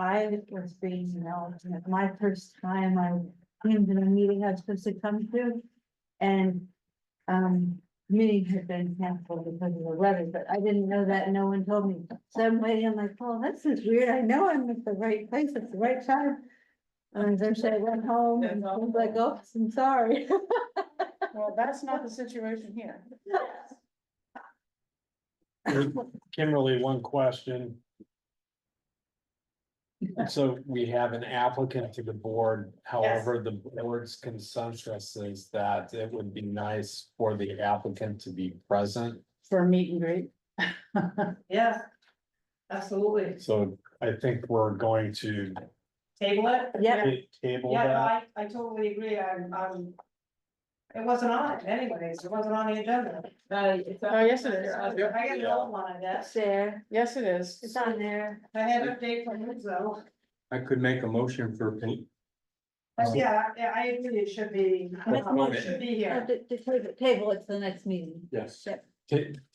I was being an alternate, my first time I came to the meeting I was supposed to come to. And, um, meeting had been canceled because of the weather, but I didn't know that, no one told me. So I'm waiting, I'm like, oh, this is weird, I know I'm at the right place at the right time. And eventually I went home and I was like, oh, I'm sorry. Well, that's not the situation here. Kimberly, one question. So we have an applicant to the board, however, the board's consensus is that it would be nice for the applicant to be present. For a meet and greet. Yeah, absolutely. So I think we're going to Table it? Yeah. table Yeah, no, that. I, I totally agree, I'm, I'm. It wasn't on it anyways, it wasn't on the agenda. Oh, yes, it is. I got an old one, I guess, There, Yes, it is. it's on there. I had an update from him, so, I could make a motion for, um, pa- but yeah, yeah, I agree, it should be, it should be Uh, here. The, the table, table, it's the next meeting. yes, Ta-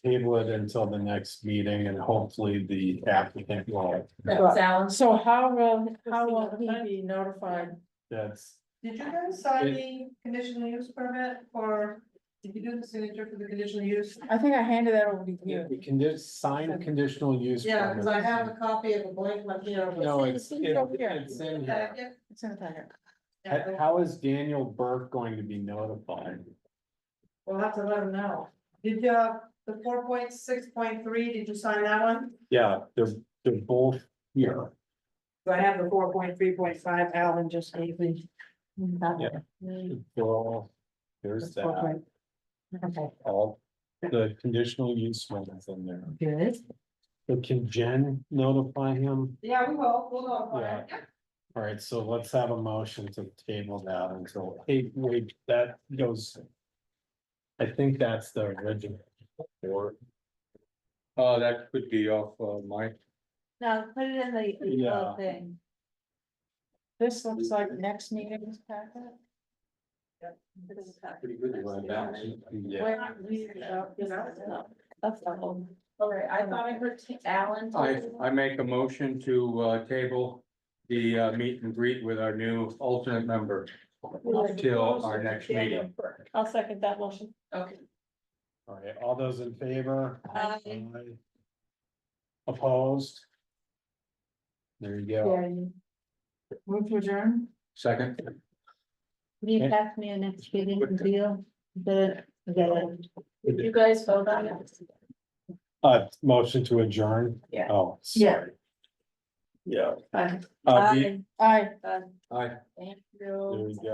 Table it until the next meeting and hopefully the applicant will, That's So how will, how will he be notified? that's, Did you guys sign the conditional use permit or did you do the signature for the conditional use? I think I handed that over to you. we can just sign a conditional use. Yeah, because I permit. have a copy of a blank one here. but- No, It's it's, in- it's in here. Yeah, It's in the packet. How- yeah, How is Daniel Burke going to be notified? We'll have to let him know. Did, uh, the four point six point three, did you sign that one? Yeah, they're, they're both here. So I have the four point three point five Alan just gave me. Yeah. Hmm. Well, there's that, Okay, all the conditional use ones in there. good. So can Jen notify him? Yeah, we will, we'll notify. him. All right, so let's have a motion to table that until, hey, wait, that goes. I think that's the original. Or, uh, that could be off, uh, my, No, put it in the- the Yeah. little thing. This looks like next meeting's packet. pretty good one, that, yeah. We're not leaving it out, you know? That's the whole. All right, I thought I heard Alan. I, I make a motion to, uh, table the, uh, meet and greet with our new alternate member till our next meeting. I'll second that motion. Okay. all right, all those in favor? Aye. Aye. Opposed? There you go. Move to adjourn? Second, Will you pass me a next meeting deal? The, the. You guys vote on it. Uh, motion to adjourn? Yeah. Oh, Yeah. sorry. Yeah. Aye. Uh, the- Aye. Aye. aye. Thank there you. we go.